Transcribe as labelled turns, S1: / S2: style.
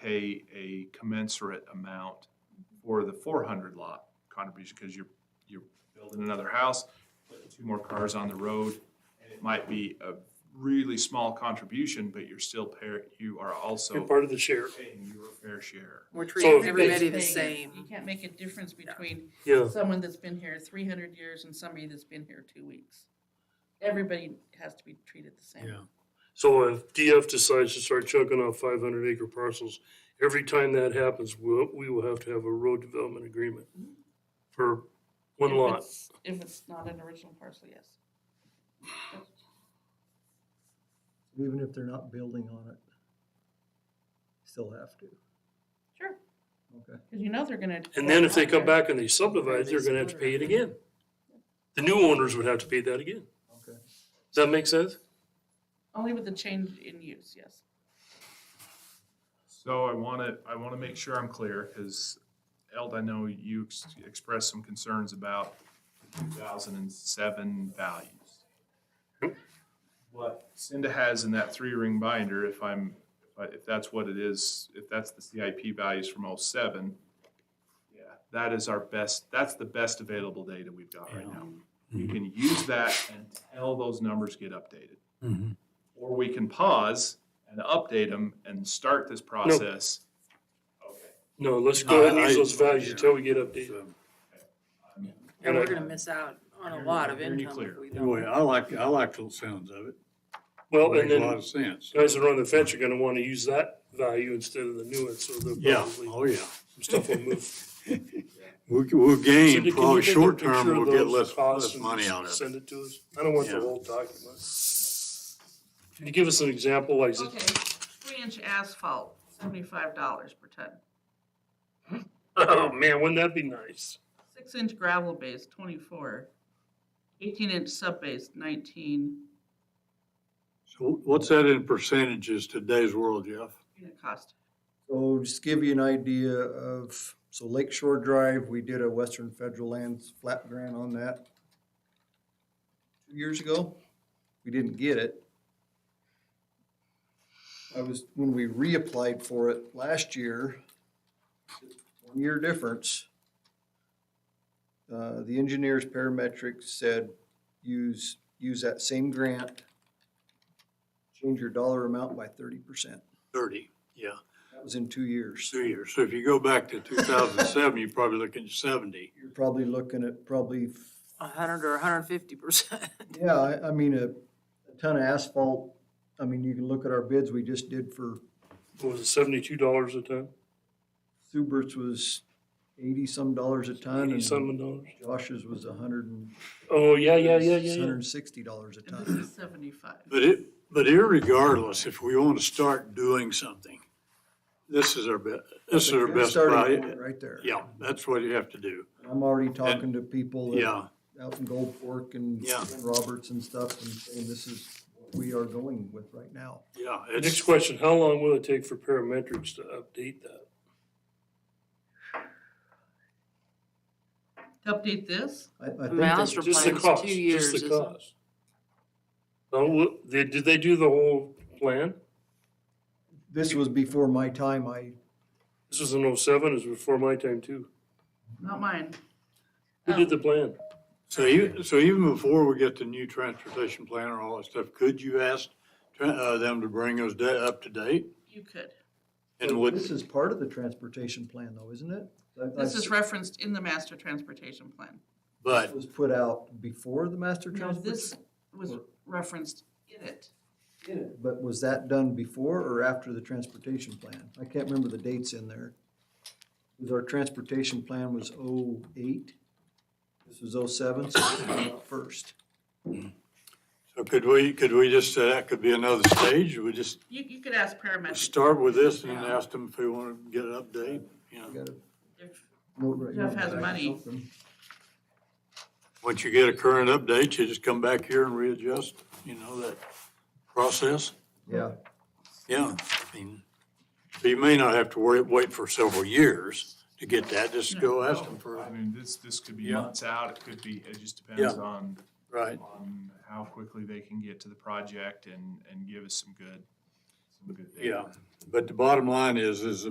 S1: pay a commensurate amount for the four hundred lot contribution, because you're, you're building another house, putting two more cars on the road, and it might be a really small contribution, but you're still pair, you are
S2: You're
S1: also
S2: part of the share.
S1: paying your fair share.
S3: We're
S2: So-
S3: treating everybody the
S4: Everybody's paying. You
S3: same.
S4: can't make a difference between
S2: Yeah,
S4: someone that's been here three hundred years and somebody that's been here two weeks. Everybody has to be treated the same.
S2: yeah. So if DF decides to start chucking off five hundred acre parcels, every time that happens, we'll, we will have to have a road development agreement for one
S4: If
S2: lot.
S4: it's- If it's not an original parcel, yes.
S5: Even if they're not building on it, still have to,
S4: Sure,
S5: okay?
S4: because you know they're gonna.
S2: And then if they come back and they subdivide, they're gonna have to pay it again. The new owners would have to pay that again.
S5: Okay.
S2: Does that make sense?
S4: Only with the change in use, yes.
S1: So I want to, I want to make sure I'm clear, because Eld, I know you ex- expressed some concerns about the 2007 values. What Cinda has in that three-ring binder, if I'm, if I- if that's what it is, if that's the CIP values from '07, yeah, that is our best, that's the best available data we've got right now. We can use that until those numbers get updated or we can pause and update them and start this process. Okay.
S2: No, let's go ahead and use
S6: No, I-
S2: those values until we get updated.
S3: And we're gonna miss out on a lot of
S1: Hearing you
S3: income if
S1: clear.
S3: we
S6: Anyway,
S3: don't.
S6: I like, I like those sounds of it.
S2: Well, and
S6: Makes a lot
S2: then
S6: of sense.
S2: guys that are on the fence are gonna wanna use that value instead of the new one, so they'll
S6: Yeah,
S2: probably,
S6: oh, yeah.
S2: some stuff will move.
S6: We'll, we'll
S2: So
S6: gain,
S2: can
S6: probably
S2: you take a
S6: short
S2: picture
S6: term,
S2: of
S6: we'll get
S2: those
S6: less,
S2: costs
S6: less
S2: and
S6: money
S2: just
S6: out of it.
S2: Send it to us. I don't want the
S6: Yeah.
S2: whole document. Can you give us an example, like,
S4: Okay, three inch asphalt, seventy-five dollars per ton.
S2: oh man, wouldn't that be nice?
S4: Six inch gravel base, twenty-four. Eighteen inch sub base, nineteen.
S6: So what's that in percentages today's world, Jeff?
S4: Unit cost.
S5: So just give you an idea of, so Lake Shore Drive, we did a Western Federal Lands flat grant on that two years ago. We didn't get it. I was, when we reapplied for it last year, one year difference. Uh, the engineers parametric said, use, use that same grant, change your dollar amount by thirty percent.
S6: Thirty, yeah,
S5: That was in two years.
S6: two years. So if you go back to two thousand and seven, you're probably looking at seventy.
S5: You're probably looking at probably,
S3: A hundred or a hundred and fifty percent.
S5: yeah, I, I mean, a a ton of asphalt. I mean, you can look at our bids we just did for
S2: What was it seventy-two dollars a ton?
S5: Subert's was eighty-some dollars a ton. and
S2: Eighty-seven dollars?
S5: Josh's was a hundred and.
S2: Oh, yeah, yeah, yeah, yeah,
S5: Hundred
S2: yeah.
S5: and sixty dollars a
S4: And this is
S5: ton.
S4: seventy-five.
S6: But it, but irregardless, if we want to start doing something, this is our best, this is our
S5: That's
S6: best
S5: starting point
S6: value.
S5: Right there.
S6: Yeah, that's what you have to do.
S5: I'm already talking to people that-
S6: Yeah,
S5: out in Gold Fork and
S6: Yeah.
S5: and Roberts and stuff and saying this is what we are going with right now.
S6: yeah.
S2: Next
S6: It's,
S2: question, how long will it take for parametrics to update that?
S4: To update this,
S5: I, I think. that-
S3: Master
S2: Just the
S3: plan's
S2: cost,
S3: two
S2: just
S3: years.
S2: the
S3: isn't it?
S2: cost. Oh, well, they, did they do the whole plan?
S5: This was before my time. I,
S2: This was in oh-seven, it was before my time too.
S4: not mine.
S2: Who
S3: Oh.
S2: did the plan?
S6: so you, so even before we get the new transportation plan or all that stuff, could you ask tra- uh, them to bring us da- up to date?
S4: You could.
S6: And
S5: this
S6: would,
S5: is part of the transportation plan though, isn't it? I-
S4: This
S5: I-
S4: is referenced in the master transportation plan.
S6: but,
S5: was put out before the master
S4: No, this
S5: transportation,
S4: was referenced in it.
S5: but was that done before or after the transportation plan? I can't remember the dates in there. Because Our transportation plan was oh eight, this was oh seven, so this came out first.
S6: so could we, could we just, say that could be another stage? We just
S4: You, you could ask paramedics.
S6: start with this and then ask them if we want to get an update, you
S5: I
S6: know?
S5: got a
S4: if-
S5: note right
S4: Jeff
S5: now,
S4: has
S5: but I can
S4: money.
S5: help him.
S6: Once you get a current update, you just come back here and readjust, you know, that process.
S5: Yeah,
S6: Yeah, I mean, so you may not have to worry, wait for several years to get that, just go ask them for
S1: I
S6: it.
S1: mean, this, this could be
S6: Yeah.
S1: months out, it could be, it just depends on,
S6: Right.
S1: on how quickly they can get to the project and, and give us some good, Have a good day.
S6: Yeah, but the bottom line is, is